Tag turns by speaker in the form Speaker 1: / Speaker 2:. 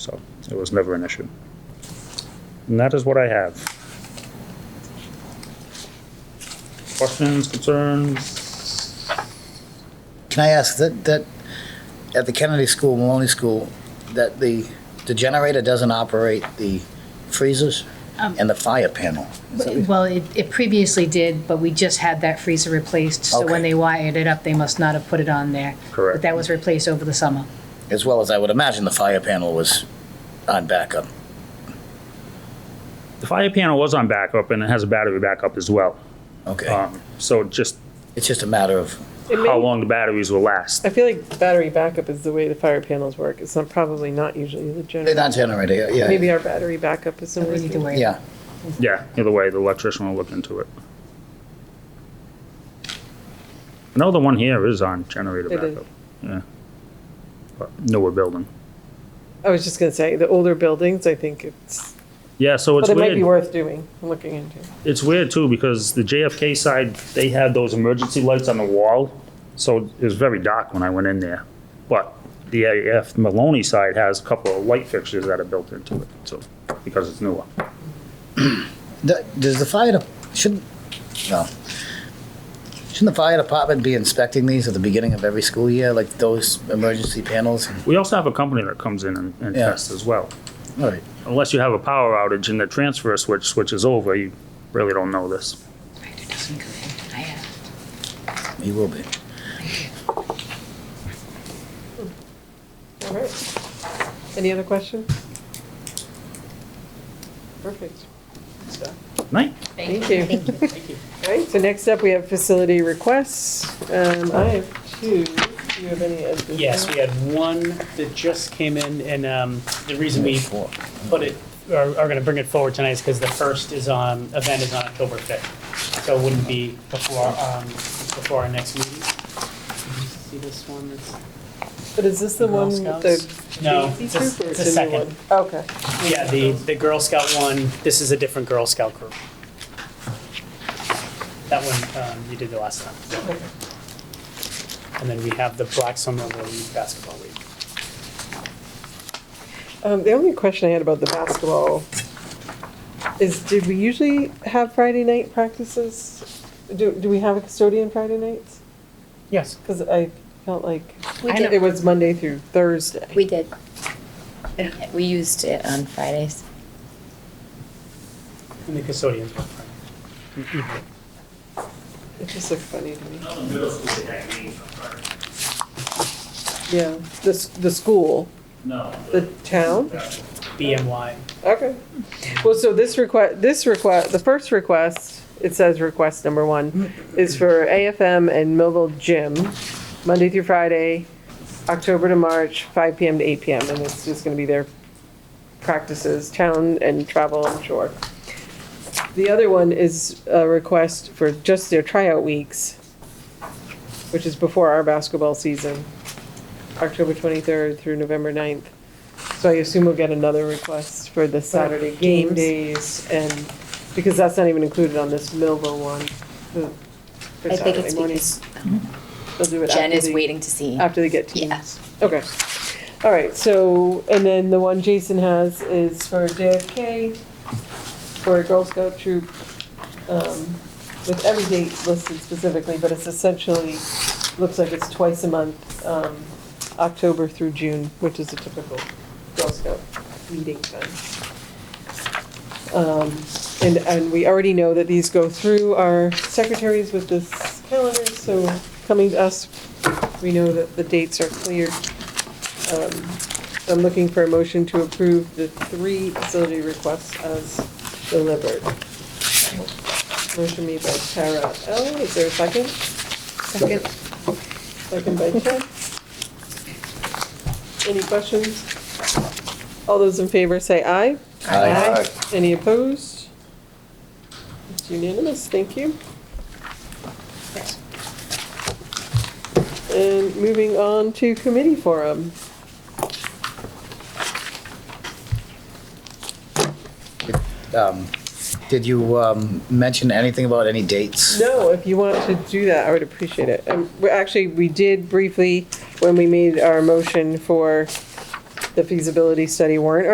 Speaker 1: So it was never an issue. And that is what I have. Questions, concerns?
Speaker 2: Can I ask that, that, at the Kennedy School, Maloney School, that the, the generator doesn't operate the freezers and the fire panel? Is that-
Speaker 3: Well, it, it previously did, but we just had that freezer replaced, so when
Speaker 2: Okay.
Speaker 3: they wired it up, they must not have put it on there.
Speaker 1: Correct.
Speaker 3: But that was replaced over the summer.
Speaker 2: As well as I would imagine the fire panel was on backup.
Speaker 1: The fire panel was on backup and it has a battery backup as well.
Speaker 2: Okay.
Speaker 1: Um, so just
Speaker 2: It's just a matter of,
Speaker 4: It may-
Speaker 1: how long the batteries will last.
Speaker 4: I feel like battery backup is the way the fire panels work. It's not probably not usually the
Speaker 2: they're
Speaker 4: generator.
Speaker 2: not generator, yeah,
Speaker 4: Maybe
Speaker 2: yeah.
Speaker 4: our battery backup is the
Speaker 3: We need to
Speaker 4: way.
Speaker 3: worry.
Speaker 2: Yeah.
Speaker 1: Yeah, either way, the electrician will look into it. I know the one here is on generator
Speaker 4: It is.
Speaker 1: backup. Yeah. But newer building.
Speaker 4: I was just gonna say, the older buildings, I think it's,
Speaker 1: Yeah, so it's
Speaker 4: but it might be
Speaker 1: weird.
Speaker 4: worth doing, looking into.
Speaker 1: It's weird too because the JFK side, they had those emergency lights on the wall. So it was very dark when I went in there. But the AF Maloney side has a couple of light fixtures that are built into it. So, because it's newer.
Speaker 2: Th- Does the fire, de- shouldn't, no. Shouldn't the fire department be inspecting these at the beginning of every school year, like those emergency panels?
Speaker 1: We also have a company that comes in and, and
Speaker 2: Yeah.
Speaker 1: tests as well.
Speaker 2: All right.
Speaker 1: Unless you have a power outage and the transfer switch switches over, you really don't know this.
Speaker 3: Spider doesn't go in. I uh, have.
Speaker 2: He will be.
Speaker 4: All right. Any other questions? Perfect.
Speaker 1: Night.
Speaker 4: Thank you. All right, so next up, we have facility requests. Um, I have two. Do you have any? additional?
Speaker 5: Yes, we had one that just came in, and um, the reason we
Speaker 2: Four.
Speaker 5: put it, are going to bring it forward tonight is because the first is on, event is on October 5th. So it wouldn't be before, um, before our next meeting. See this one? that's-
Speaker 4: But is this the
Speaker 5: Girl
Speaker 4: one, with
Speaker 5: Scouts?
Speaker 4: the
Speaker 5: No,
Speaker 4: Daisy
Speaker 5: it's a-
Speaker 4: troop or
Speaker 5: it's
Speaker 4: is
Speaker 5: a
Speaker 4: it a new
Speaker 5: second.
Speaker 4: one? Okay.
Speaker 5: Yeah, the, the Girl Scout one, this is a different Girl Scout group. That one um, you did the last time. And then we have the Black Summer League Basketball League.
Speaker 4: Um, the only question I had about the basketball is, did we usually have Friday night practices? Do, do we have a custodian Friday nights?
Speaker 5: Yes.
Speaker 4: Because I felt like
Speaker 6: We
Speaker 4: it
Speaker 6: did,
Speaker 4: was Monday through Thursday.
Speaker 6: we did. We used it on Fridays.
Speaker 5: And the custodians were friends.
Speaker 4: It just looked funny to me.
Speaker 1: Middle school, they had games on Friday.
Speaker 4: Yeah, the, s- the school,
Speaker 1: No.
Speaker 4: the town?
Speaker 5: BMY.
Speaker 4: Okay. Well, so this request, this request, the first request, it says request number one, is for AFM and Millville Gym, Monday through Friday, October to March, five PM to eight PM, and it's just gonna be their practices, town and travel, I'm sure. The other one is a request for just their tryout weeks, which is before our basketball season, October twenty-third through November 9th. So I assume we'll get another request for the Saturday game days and, because that's not even included on this Millville one. the- for
Speaker 6: I think
Speaker 4: Saturday
Speaker 6: it's
Speaker 4: morning.
Speaker 6: because
Speaker 4: They'll do it
Speaker 6: Jen
Speaker 4: after
Speaker 6: is
Speaker 4: the-
Speaker 6: waiting to see.
Speaker 4: After they get teams.
Speaker 6: Yeah.
Speaker 4: Okay. All right, so, and then the one Jason has is for JFK, for a Girl Scout troop, um, with every date listed specifically, but it's essentially, looks like it's twice a month, um, October through June, which is a typical Girl Scout meeting time. Um, and, and we already know that these go through our secretaries with this calendar, so coming to us, we know that the dates are cleared. Um, I'm looking for a motion to approve the three facility requests as delivered. Motion made by Tara L. Is there a second? Second. Second by Ted. Any questions? All those in favor say aye.
Speaker 2: Aye.
Speaker 4: Any opposed? It's unanimous, thank you. And moving on to committee forum.
Speaker 2: Um, Did you um, mention anything about any dates?
Speaker 4: No, if you want to do that, I would appreciate it. Um, we- Actually, we did briefly when we made our motion for the feasibility study warrant